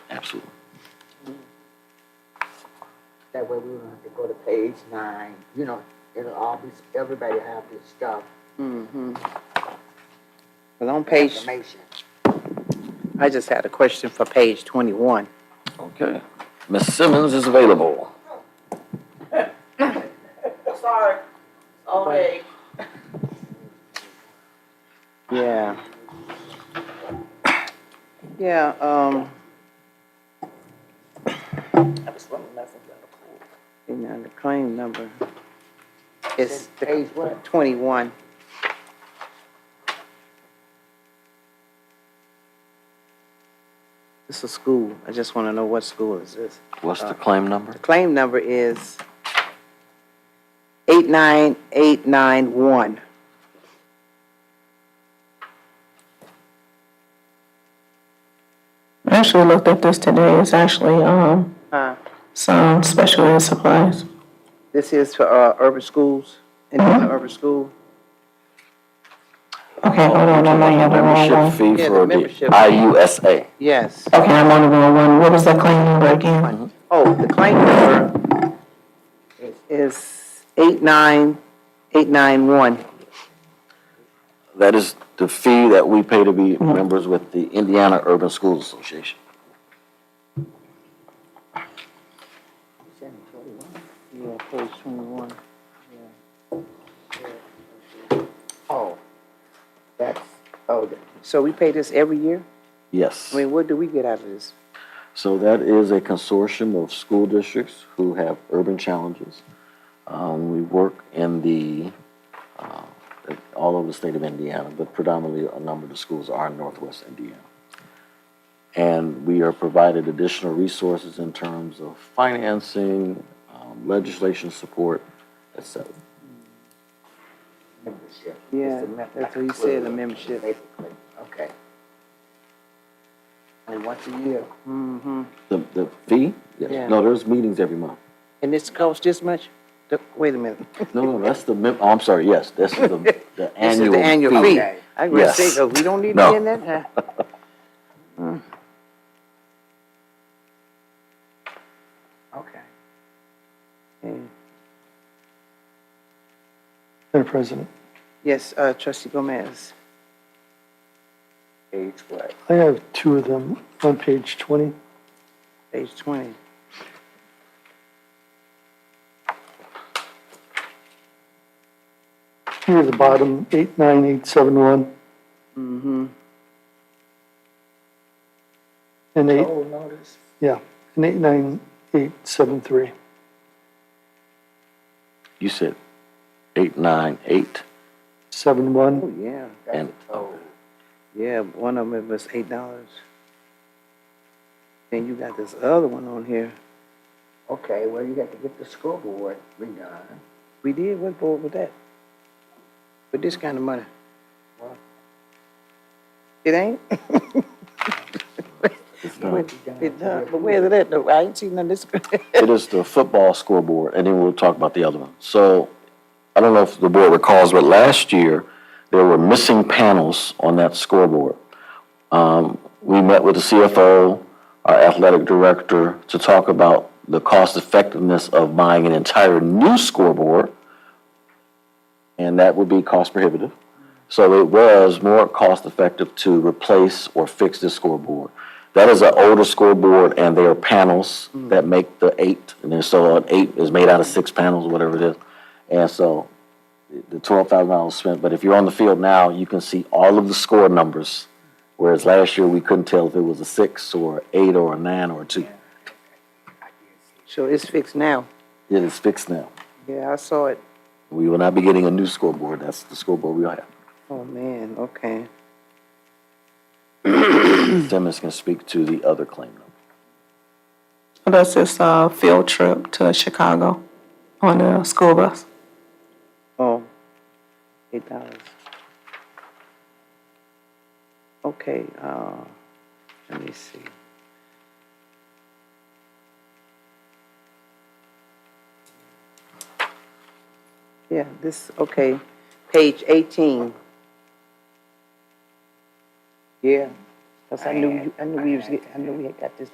Absolutely. That way we don't have to go to page nine, you know, it'll all be, everybody have this stuff, Mm-hmm. Well, on page, information. I just had a question for page twenty-one. Okay. Ms. Simmons is available. Sorry, all day. Yeah. Yeah, um. And then the claim number is Said Page what? twenty-one. This is a school. I just want to know what school is this? What's the claim number? The claim number is eight nine eight nine one. I actually looked at this today. It's actually, um, Uh, some special ed supplies. This is for, uh, urban schools, Indiana urban school. Okay, hold on, I might have the wrong Membership one. fee Yeah, the for the membership. IUSA. Yes. Okay, I'm on the wrong one. What was the claim number again? Oh, the claim number is eight nine eight nine one. That is the fee that we pay to be members with the Indiana Urban Schools Association. Yeah, page twenty-one. Oh, that's, oh, the- So we pay this every year? Yes. I mean, what do we get out of this? So that is a consortium of school districts who have urban challenges. Um, we work in the, uh, all over the state of Indiana, but predominantly a number of the schools are in northwest Indiana. And we are provided additional resources in terms of financing, um, legislation support, et cetera. membership. It's Yeah, a mem- that's what he said, the membership. Basically, Okay. Only once a year. Mm-hmm. The, the fee? Yeah. Yes. No, there's meetings every month. And this costs this much? The- Wait a minute. No, no, that's the, mem- oh, I'm sorry, yes, this is the, the This is annual the annual fee. Okay. I was gonna say, Yes. 'cause we don't need to No. be in that. Hmm. huh? Okay. Mm. Madam President, Yes, uh, trustee Gomez. Age what? I have two of them on page 20. Page twenty. Here at the bottom, 89871 Mm-hmm. and 8, Oh, notice. yeah, and 89873. You said eight, nine, eight, 71, Oh, yeah. and Oh, Yeah, one of them was eight dollars. And you got this other one on here. okay, well, you got to get the scoreboard redone. We did, what board with that? With this kind of money? What? It ain't? it's done. It done, but where's it at though? I ain't seen none of this. It is the football scoreboard, and then we'll talk about the other one. So, I don't know if the board recalls, but last year, there were missing panels on that scoreboard. Um, we met with the CFO, our athletic director, to talk about the cost effectiveness of buying an entire new scoreboard, and that would be cost prohibitive. So it was more cost effective to replace or fix this scoreboard. That is an older scoreboard and there are panels that make the eight. And then so an eight is made out of six panels, whatever it is. And so the twelve thousand dollars spent, but if you're on the field now, you can see all of the score numbers. Whereas last year, we couldn't tell if it was a six or eight or a nine or a two. So it's fixed now. It is fixed now. Yeah, I saw it. We will not be getting a new scoreboard. That's the scoreboard we'll have. Oh, man, okay. Simmons can speak to the other claim number. That's this, uh, field trip to Chicago on a school bus. Oh, eight dollars. Okay, uh, let me see. Yeah, this, okay, page eighteen. Yeah, cause I knew, you- I knew we was, get- I knew we had got this